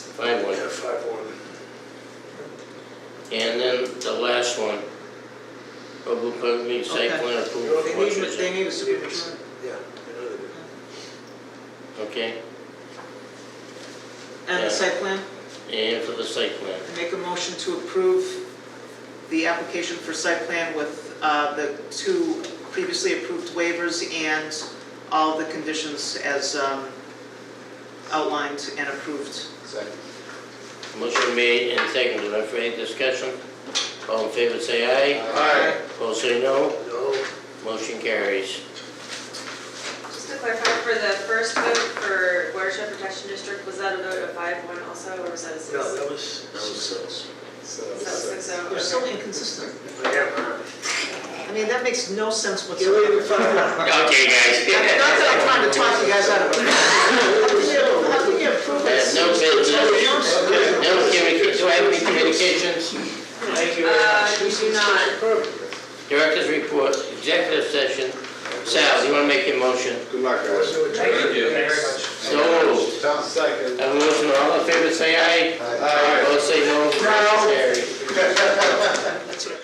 And then the last one, approval of the site Okay. plan They approval need, for they Orchard, need a signature. Yeah, I know they do. okay? And Yeah. the site plan, And for the site plan. I make a motion to approve the application for site plan with uh, the two previously approved waivers and all the conditions as um, outlined and approved. Second. Motion made and seconded, are there any discussion? All in favor, say aye. Aye. Opposed, say no. No, Motion carries. Just to clarify, for the first vote for watershed protection district, was that a vote of five one also, or was that a six? no, that was. That was six. So- Was that six oh? You're so inconsistent. Yeah. I mean, that makes no sense You whatsoever. were Not even fine. Okay, guys. that I'm trying to talk you guys out of it. How can you- How can you approve Uh, it? No business, no communication, do I have any communications? Thank you very much. Uh, you do not. Director's report, executive session. Sal, you wanna make your motion? Good luck, guys. Motion to adjourn. Thank you. Very much. So moved. Second. Have a motion, all in favor, say aye. Aye.